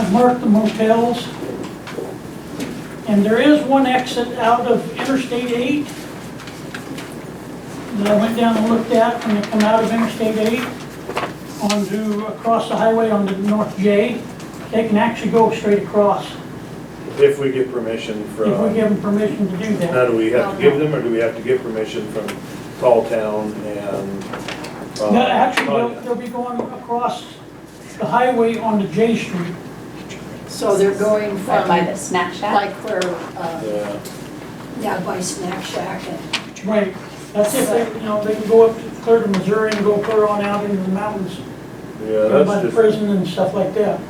I've marked the motels. And there is one exit out of Interstate 8 that I went down and looked at when you come out of Interstate 8 onto, across the highway onto North J. They can actually go straight across If we get permission if we from, give them permission to do that. now, do we have to give them, or do we have to get permission from Tall Town and? uh, No, actually, they'll, Tanya? they'll be going across the highway onto J Street. So they're going Right from, by the snack shack. like where, uh, Yeah, yeah, by Snack Shack and, Right, that's if they, you know, they can go up to- clear to Missouri and go clear on out into the mountains, yeah, down by that's the just. prison and stuff like that.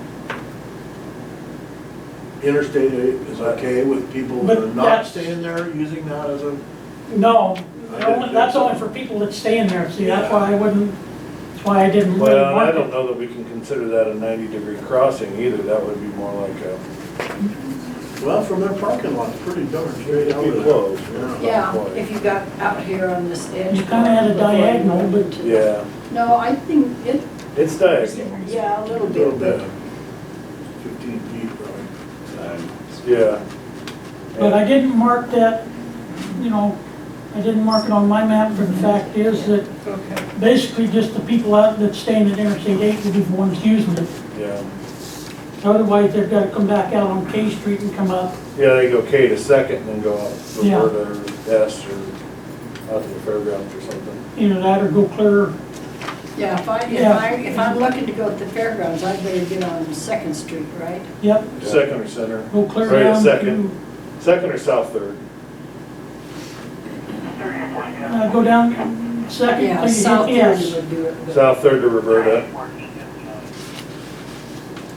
Interstate eight is okay with people that are But not that's- staying there, using that as a, No, I the only- didn't that's think so. only for people that stay in there, see, that's why I wouldn't, that's why I didn't really Well, I want don't it. know that we can consider that a ninety-degree crossing either, that would be more like a, well, from their parking lot, it's pretty darn straight out be of there. close. yeah, if you got out here on this edge. You kinda had a before you- diagonal, but Yeah, No, I think it, it's diagonal, yeah, a little Little bit, bit, but fifteen feet probably. yeah. But I didn't mark that, you know, I didn't mark it on my map, but the fact is that basically just the people out that's staying at Interstate eight would be the ones using it. Yeah, Otherwise, they've gotta come back out on K Street and come up. yeah, they go K to Second and then go out to Yeah. Roberta or S or out to the fairgrounds or something. Either that or go clear, yeah, if I, if Yeah. I, if I'm looking to go to the fairgrounds, I better get on Second Street, right? yep, Second or Center, go clear Right, down to, second. Second or South Third, uh, go down second. Yeah, till you hit South Thirty S. would do it, but, South Third to Roberta.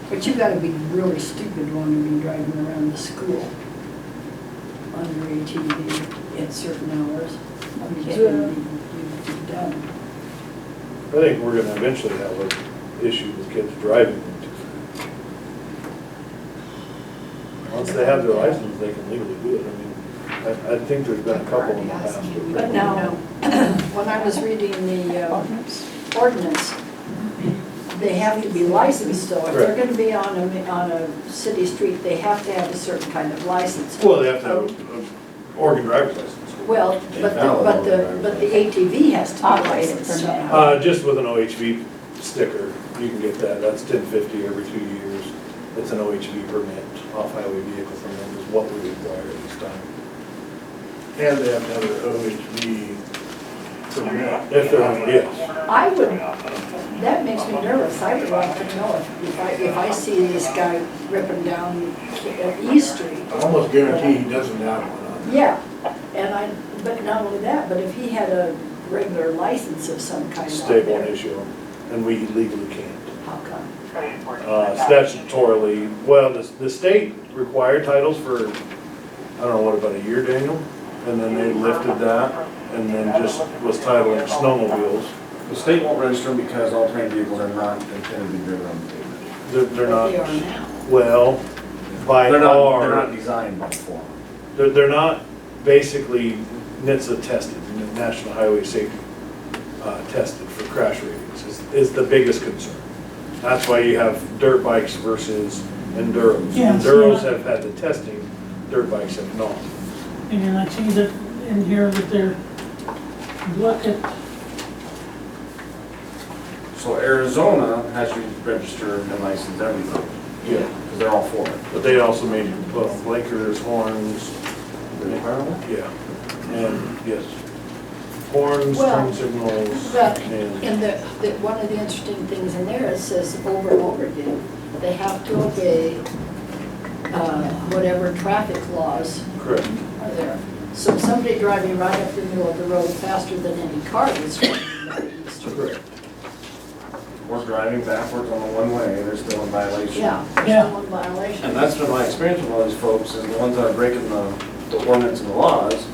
but you gotta be really stupid wanting to be driving around the school on your ATV at certain hours. I mean, it's gonna be- you'd be done. I think we're gonna eventually have an issue with kids driving. Once they have their license, they can legally do it. I mean, I, I think there's been a couple in the past. But now, when I was reading the uh, ordinance, they have to be licensed, so if they're Correct. gonna be on a, on a city street, they have to have a certain kind of license. Well, they have to have an Oregon driver's license. Well, but the, but the, but the ATV has to be Operated licensed permit. somehow. Uh, just with an OHV sticker, you can get that. That's ten fifty every two years. It's an OHV permit, off-highway vehicle permit is what we require at this time. And they have to have their OHV permit. If they're, yes. I would, that makes me nervous, I would want to know if, if I, if I see this guy ripping down E Street. I almost guarantee he doesn't have one on there. Yeah, and I, but not only that, but if he had a regular license of some kind out State won't there, issue them, and we legally can't. how come? uh, statutorily, well, the, the state required titles for, I don't know, what, about a year, Daniel? And then they lifted that, and then just was titling snowmobiles. The state won't register them because all terrain vehicles are not intended to be driven on the pavement. They're, they're They are not, now. well, by They're not, they're our, not designed by form. they're, they're not basically NHTSA tested, National Highway Safety, uh, tested for crash ratings, is, is the biggest concern. That's why you have dirt bikes versus enduros. Yeah, so Enduros that- have had the testing, dirt bikes have not. And I see that in here that they're, look at, So Arizona has you register and license everything, Yeah. because they're all for it. But they also made, well, Lakers, horns, yeah, and, yes. Horns, Well, turn signals, But, and, and the, the, one of the interesting things in there, it says over and over again, they have to obey, uh, whatever traffic laws correct. are there. So somebody driving right up the middle of the road faster than any car is driving down the street. We're driving backwards on the one-way, they're still in violation. Yeah, Yeah. there's one violation. And that's been my experience with all these folks, is the ones that are breaking the, the ordinance and the laws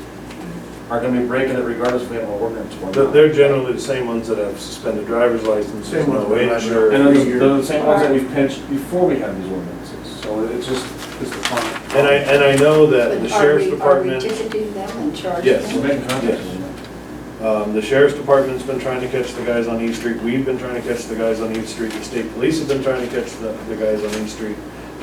are gonna be breaking it regardless if we have an ordinance or They're- not. They're generally the same ones that have suspended driver's license, Same no ones with driver's- And insurance. those- they're the same ones that we've pinched before we had these ordinances, so it's just, it's the fun. And I, and I know that But the are sheriff's we- department. Are we ticketing them and charging them? Yes. We're making contact Yes. with them. Um, the sheriff's department's been trying to catch the guys on East Street, we've been trying to catch the guys on East Street, the state police have been trying to catch the, the guys on East Street.